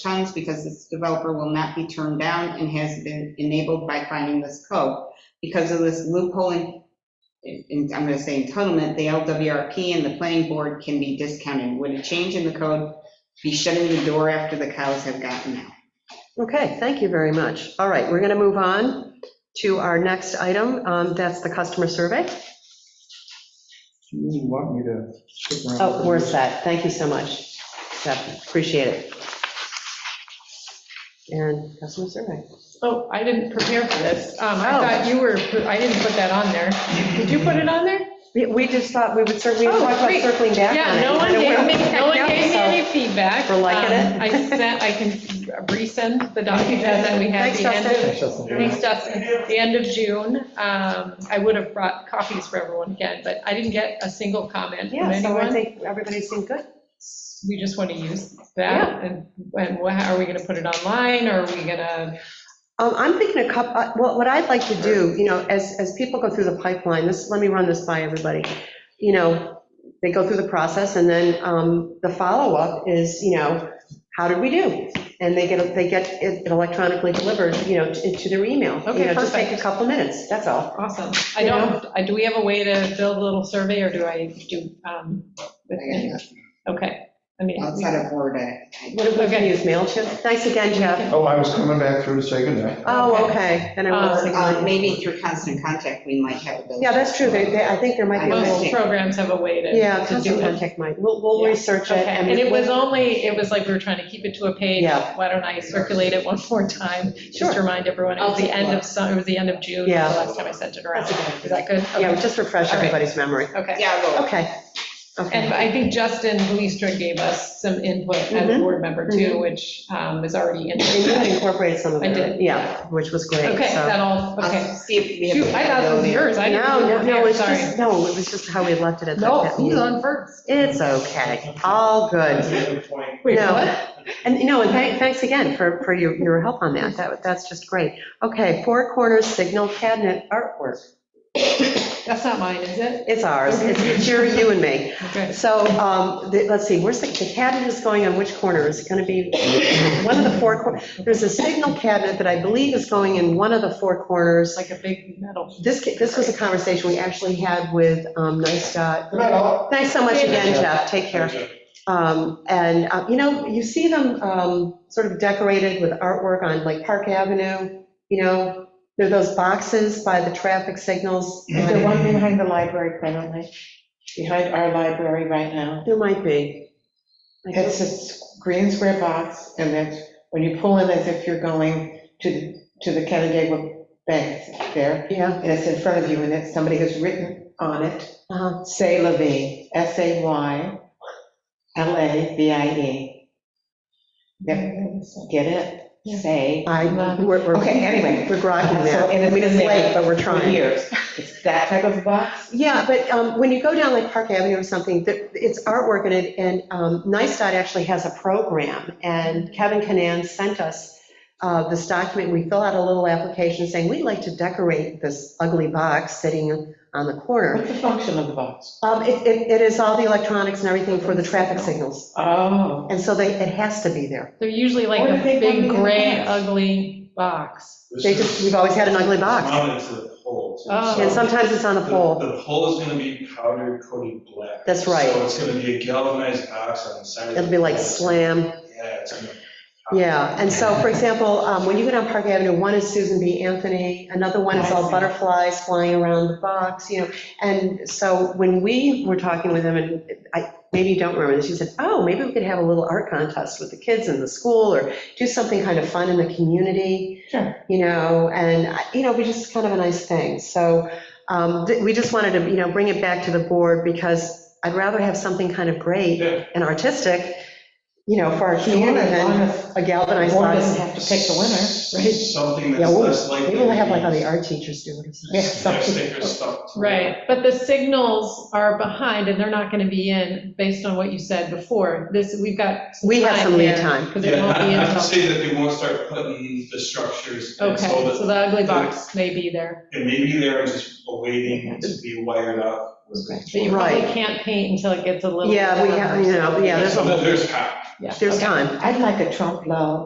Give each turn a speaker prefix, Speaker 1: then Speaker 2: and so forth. Speaker 1: times because this developer will not be turned down and has been enabled by finding this code. Because of this loophole in- in, I'm going to say entitlement, the LWRP and the planning board can be discounted. Would a change in the code be shutting the door after the cows have gotten out?
Speaker 2: Okay, thank you very much. All right, we're going to move on to our next item. Um, That's the customer survey.
Speaker 3: You want me to stick around?
Speaker 2: Oh, we're set. Thank you so much, Seth. Appreciate it. And customer survey.
Speaker 4: Oh, I didn't prepare for this. Um, I
Speaker 2: Oh.
Speaker 4: thought you were, I didn't put that on there. Did you put it on there?
Speaker 2: We- We just thought we would certainly, we
Speaker 4: Oh,
Speaker 2: talked about
Speaker 4: great.
Speaker 2: circling back on
Speaker 4: Yeah,
Speaker 2: it.
Speaker 4: no one
Speaker 2: Kinda
Speaker 4: gave
Speaker 2: where
Speaker 4: me,
Speaker 2: we
Speaker 4: no one
Speaker 2: picked up,
Speaker 4: gave me
Speaker 2: so-
Speaker 4: any feedback.
Speaker 2: We're liking it.
Speaker 4: Um, I sent, I can resend the document that we had at
Speaker 2: Thanks,
Speaker 4: the end of,
Speaker 3: That's just a-
Speaker 4: thanks, Dustin, the end of June. Um, I would have brought copies for everyone again, but I didn't get a single comment from
Speaker 2: Yeah, so I
Speaker 4: anyone.
Speaker 2: think everybody seemed good.
Speaker 4: We just want to use that and, and wha- are we going to put it online or are we going to?
Speaker 2: Um, I'm thinking a couple, well, what I'd like to do, you know, as, as people go through the pipeline, this, let me run this by everybody. You know, they go through the process and then, um, the follow-up is, you know, how did we do? And they get, they get it electronically delivered, you know, to to their email. You
Speaker 4: Okay,
Speaker 2: know, Just take a
Speaker 4: perfect.
Speaker 2: couple minutes, that's all.
Speaker 4: Awesome. I
Speaker 2: You
Speaker 4: don't, I- do we have a way to build a little survey, or do I do, um, with- okay, I mean.
Speaker 1: Outside of Word, I- I-
Speaker 2: What if we can
Speaker 4: Okay.
Speaker 2: use MailChimp? Thanks again, Jeff.
Speaker 3: Oh, I was coming back through to say goodnight.
Speaker 2: Oh, okay, then I
Speaker 4: Um,
Speaker 1: uh,
Speaker 2: will.
Speaker 1: maybe through constant contact, we might have a building.
Speaker 2: Yeah, that's true, they, they, I think there might be a way.
Speaker 4: Most programs have a way to.
Speaker 2: Yeah,
Speaker 4: to do
Speaker 2: constant
Speaker 4: it.
Speaker 2: contact might, we'll, we'll
Speaker 4: Yeah.
Speaker 2: research it.
Speaker 4: Okay, and it was only, it was like we were trying to keep it to a page.
Speaker 2: Yeah.
Speaker 4: Why don't I circulate it one more time? Just
Speaker 2: Sure.
Speaker 4: to remind everyone, it
Speaker 1: I'll
Speaker 4: was the
Speaker 1: take a
Speaker 4: end
Speaker 1: look.
Speaker 4: of, su- it was the end of June, the
Speaker 2: Yeah.
Speaker 4: last time I sent it around.
Speaker 2: That's a good idea.
Speaker 4: Is that good?
Speaker 2: Yeah,
Speaker 4: Okay,
Speaker 2: just refresh
Speaker 4: Okay.
Speaker 2: everybody's memory.
Speaker 4: Okay.
Speaker 1: Yeah, well,
Speaker 2: Okay, okay.
Speaker 4: And I think Justin Leestra gave us some input as a
Speaker 2: Mhm.
Speaker 4: board member too, which um, is already in.
Speaker 2: And you had incorporated some of
Speaker 4: I
Speaker 2: it.
Speaker 4: did.
Speaker 2: Yeah, which was great.
Speaker 4: Okay,
Speaker 2: so-
Speaker 4: that all, okay.
Speaker 1: I'll see if we have.
Speaker 4: Shoot, I thought this was
Speaker 1: availability.
Speaker 4: yours, I didn't.
Speaker 2: No, no, no, it's
Speaker 4: Sorry.
Speaker 2: just, no, it was just how we had left it at
Speaker 4: No,
Speaker 2: that
Speaker 4: he's
Speaker 2: meeting.
Speaker 4: on first.
Speaker 2: It's okay, all good.
Speaker 4: Wait,
Speaker 2: No.
Speaker 4: what?
Speaker 2: And, you know, and thank- thanks again for, for your, your help on that. That, that's just great. Okay, Four Corners Signal Cabinet Artwork.
Speaker 4: That's not mine, is it?
Speaker 2: It's ours. It's it's your, you and me.
Speaker 4: Okay.
Speaker 2: So, um, the- let's see, where's the, the cabinet is going on which corner? Is it gonna be one of the four, cor- there's a signal cabinet that I believe is going in one of the four corners.
Speaker 4: It's like a big metal.
Speaker 2: This, ca- this was a conversation we actually had with um, Nice Dot.
Speaker 3: Good night, all.
Speaker 2: Thanks so much again,
Speaker 3: Yeah.
Speaker 2: Jeff, take care. Um, And, uh, you know, you see them um, sort of decorated with artwork on like Park Avenue, you know, there are those boxes by the traffic signals.
Speaker 5: The
Speaker 2: There
Speaker 5: one behind the library currently, behind our library right now.
Speaker 2: might be. I
Speaker 5: It's
Speaker 2: guess-
Speaker 5: a s- green square box, and that's, when you pull in, as if you're going to, to the Canandaigua Bank there,
Speaker 2: Yeah,
Speaker 5: and it's in front of you, and it's, somebody has written on it,
Speaker 2: uh-huh.
Speaker 5: Say Levine, S-A-Y-L-A-V-I-E. Yep, E. get it? Say.
Speaker 2: I, we're, we're
Speaker 5: Okay, anyway.
Speaker 2: we're grokking that.
Speaker 5: So, and
Speaker 2: I
Speaker 5: it's
Speaker 2: mean, it's
Speaker 5: been
Speaker 2: late,
Speaker 5: there
Speaker 2: but we're
Speaker 5: For
Speaker 2: trying.
Speaker 5: years. It's that type of box?
Speaker 2: Yeah, but um, when you go down like Park Avenue or something, th- it's artwork in it, and um, NICEDOT actually has a program, and Kevin Canan sent us uh, this document, we fill out a little application saying, we'd like to decorate this ugly box sitting on the corner.
Speaker 5: What's the function of the box?
Speaker 2: Um, It it- it is all the electronics and everything for the traffic signals,
Speaker 5: Oh.
Speaker 2: and so they, it has to be there.
Speaker 4: They're usually like
Speaker 5: What
Speaker 4: a
Speaker 5: if they
Speaker 4: big
Speaker 5: come in
Speaker 4: gray,
Speaker 5: advance?
Speaker 4: ugly box.
Speaker 2: They just, we've always had an ugly box,
Speaker 6: Mounted to the pole. too.
Speaker 4: Oh.
Speaker 6: So
Speaker 2: and sometimes it's on a
Speaker 6: the-
Speaker 2: pole.
Speaker 6: The pole is gonna be powder coated black.
Speaker 2: That's right.
Speaker 6: So it's gonna be a galvanized box on the side. of the
Speaker 2: It'll be like
Speaker 6: pole.
Speaker 2: slam.
Speaker 6: Yeah, it's gonna.
Speaker 2: Yeah, and so, for example, um, when you go down Park Avenue, one is Susan B. Anthony, another one is all butterflies flying around the box, you know, and so when we were talking with them, and I maybe you don't remember this, she said, oh, maybe we could have a little art contest with the kids in the school, or do something kind of fun in the community.
Speaker 5: Sure.
Speaker 2: You know, and, I- you know, we just kind of a nice thing, so um, th- we just wanted to, you know, bring it back to the board, because I'd rather have something kind of great
Speaker 6: Yeah.
Speaker 2: and artistic, you know, for our
Speaker 5: Warren
Speaker 2: community than a galvanized
Speaker 5: Warren
Speaker 2: box.
Speaker 5: doesn't have to pick the winner.
Speaker 2: right?
Speaker 6: Something
Speaker 2: Yeah,
Speaker 6: that's
Speaker 2: we'll-
Speaker 6: less likely.
Speaker 2: Maybe we'll have
Speaker 6: to
Speaker 2: like
Speaker 6: be
Speaker 2: all the art teachers do it or something.
Speaker 5: Yeah,
Speaker 6: Their
Speaker 5: something.
Speaker 6: stickers stuck to it.
Speaker 4: Right, but the signals are behind and they're not going to be in, based on what you said before. This, we've got.
Speaker 2: We have some lead time.
Speaker 4: Because it
Speaker 6: Yeah,
Speaker 4: won't be
Speaker 6: I I would
Speaker 4: until,
Speaker 6: say that they won't start putting the structures. in,
Speaker 4: okay,
Speaker 6: so that
Speaker 4: so the ugly box may be there.
Speaker 6: It may be there and just waiting to be wired up.
Speaker 4: But you probably
Speaker 2: Right.
Speaker 4: can't paint until it gets a little.
Speaker 2: Yeah, we have, you know, yeah, there's,
Speaker 6: There's,
Speaker 2: a whole
Speaker 6: there's time.
Speaker 2: there's time.
Speaker 5: I'd like a trump low.